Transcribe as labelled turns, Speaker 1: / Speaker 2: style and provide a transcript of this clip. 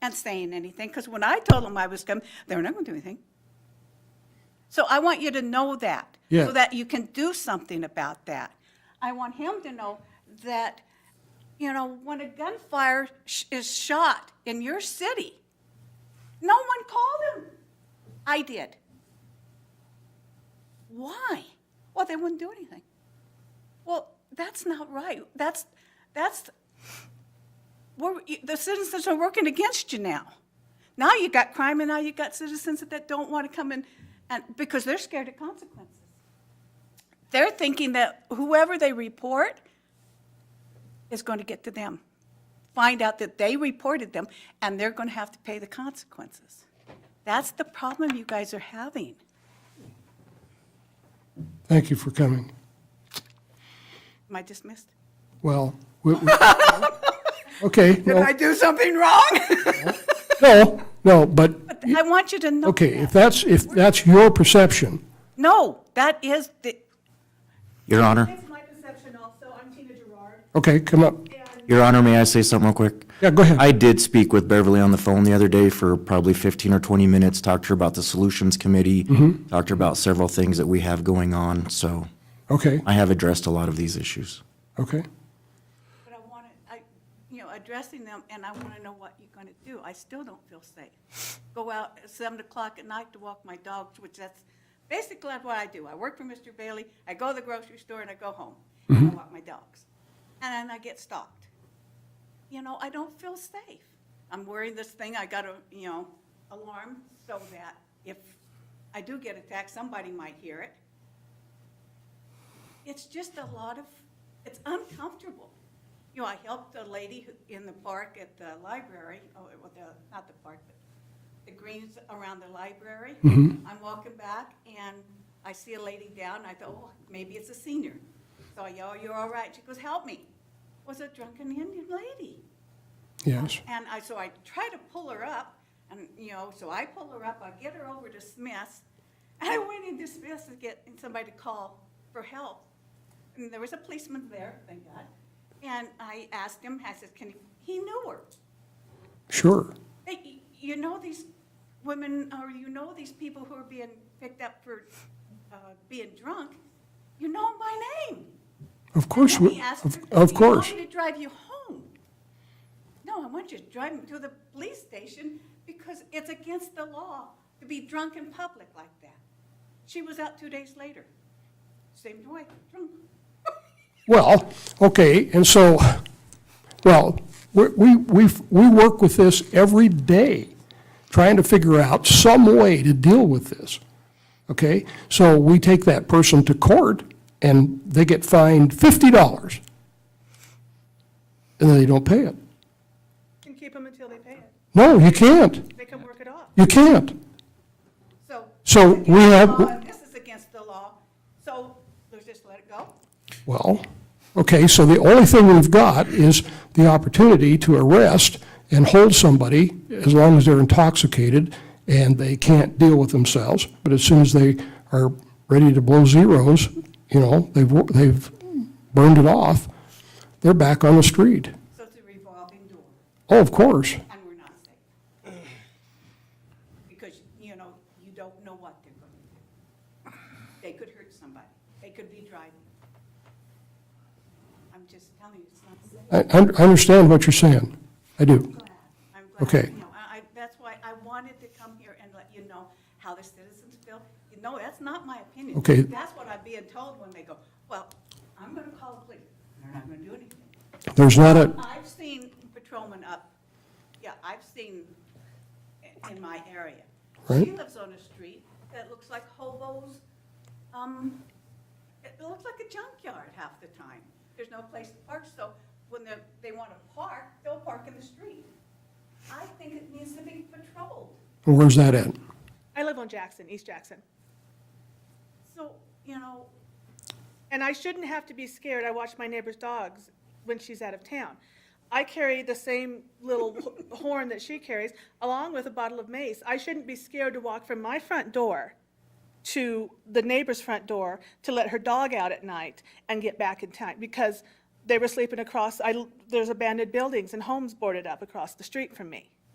Speaker 1: and saying anything, because when I told them I was coming, they were not going to do anything. So I want you to know that,
Speaker 2: Yeah.
Speaker 1: so that you can do something about that. I want him to know that, you know, when a gunfire sh- is shot in your city, no one called him. I did. Why? Well, they wouldn't do anything. Well, that's not right. That's, that's, we're, the citizens are working against you now. Now you got crime and now you got citizens that don't want to come in and, because they're scared of consequences. They're thinking that whoever they report is going to get to them. Find out that they reported them and they're going to have to pay the consequences. That's the problem you guys are having.
Speaker 2: Thank you for coming.
Speaker 1: Am I dismissed?
Speaker 2: Well, we- we- okay,
Speaker 1: Did
Speaker 2: no,
Speaker 1: I do something wrong?
Speaker 2: no, no, but,
Speaker 1: I want you to know
Speaker 2: okay,
Speaker 1: that.
Speaker 2: if that's, if that's your perception,
Speaker 1: No, that is, the-
Speaker 3: Your Honor,
Speaker 4: It's my perception also, I'm Tina Gerard,
Speaker 2: okay, come up.
Speaker 3: Your Honor, may I say something real quick?
Speaker 2: Yeah, go ahead.
Speaker 3: I did speak with Beverly on the phone the other day for probably 15 or 20 minutes, talked to her about the Solutions Committee,
Speaker 2: Mm-hmm.
Speaker 3: talked to her about several things that we have going on, so
Speaker 2: Okay,
Speaker 3: I have addressed a lot of these issues.
Speaker 2: okay.
Speaker 1: but I want to, I, you know, addressing them, and I want to know what you're going to do. I still don't feel safe. Go out at seven o'clock at night to walk my dogs, which that's basically what I do. I work for Mr. Bailey, I go to the grocery store, and I go home. And I walk my dogs. And then I get stalked. You know, I don't feel safe. I'm wearing this thing, I got a, you know, alarm, so that if I do get attacked, somebody might hear it. It's just a lot of, it's uncomfortable. You know, I helped a lady who- in the park at the library, oh, well, the, not the park, but the greens around the library. I'm walking back and I see a lady down, I thought, oh, maybe it's a senior. So I yell, you're all right, she goes, help me. Was a drunken Indian lady.
Speaker 2: Yes,
Speaker 1: And I, so I try to pull her up, and, you know, so I pull her up, I get her over to Smith's, and I went into Smith's to get somebody to call for help. And there was a policeman there, thank God, and I asked him, I said, can, you-" he knew her.
Speaker 2: sure.
Speaker 1: Hey, You know these women, or you know these people who are being picked up for uh, being drunk, you know my name.
Speaker 2: Of course,
Speaker 1: And
Speaker 2: we-
Speaker 1: he asked
Speaker 2: of
Speaker 1: her,
Speaker 2: of
Speaker 1: "Do you want
Speaker 2: course.
Speaker 1: me to drive you home? No, I want you to drive me to the police station because it's against the law to be drunk in public like that. She was out two days later. Same way, drunk.
Speaker 2: Well, okay, and so, well, we, we, we've- we work with this every day, trying to figure out some way to deal with this, okay? So we take that person to court, and they get fined fifty dollars, and then they don't pay it.
Speaker 4: can keep them until they pay it,
Speaker 2: No, you can't,
Speaker 4: they can work it off.
Speaker 2: you can't.
Speaker 1: So.
Speaker 2: So
Speaker 1: it's
Speaker 2: we
Speaker 1: against the
Speaker 2: have-
Speaker 1: law, and This is against the law, so let's just let it go.
Speaker 2: Well, okay, so the only thing we've got is the opportunity to arrest and hold somebody as long as they're intoxicated and they can't deal with themselves. But as soon as they are ready to blow zeros, you know, they've, wo- they've burned it off, they're back on the street.
Speaker 1: So it's a revolving door.
Speaker 2: Oh, of course.
Speaker 1: and we're not safe. Because, you know, you don't know what they're going to do. They could hurt somebody, they could be driving. I'm just telling you, it's not safe.
Speaker 2: I, I understand what you're saying. I do.
Speaker 1: I'm glad. I'm glad,
Speaker 2: Okay.
Speaker 1: you know, I, I- that's why I wanted to come here and let you know how the citizens feel. You know, that's not my opinion.
Speaker 2: Okay.
Speaker 1: That's what I'm being told when they go, well, I'm going to call the police, they're not going to do anything.
Speaker 2: There's not a,
Speaker 1: I've seen patrolmen up, yeah, I've seen i- in my area. She
Speaker 2: Right.
Speaker 1: lives on a street that looks like hobos, um, it looks like a junkyard half the time. There's no place to park, so when they, they want to park, they'll park in the street. I think it needs to be patrolled.
Speaker 2: where's that at?
Speaker 4: I live on Jackson, East Jackson,
Speaker 1: So, you know,
Speaker 4: and I shouldn't have to be scared, I watch my neighbor's dogs when she's out of town. I carry the same little wh- horn that she carries, along with a bottle of mace. I shouldn't be scared to walk from my front door to the neighbor's front door to let her dog out at night and get back in time because they were sleeping across, I, there's abandoned buildings and homes boarded up across the street from me.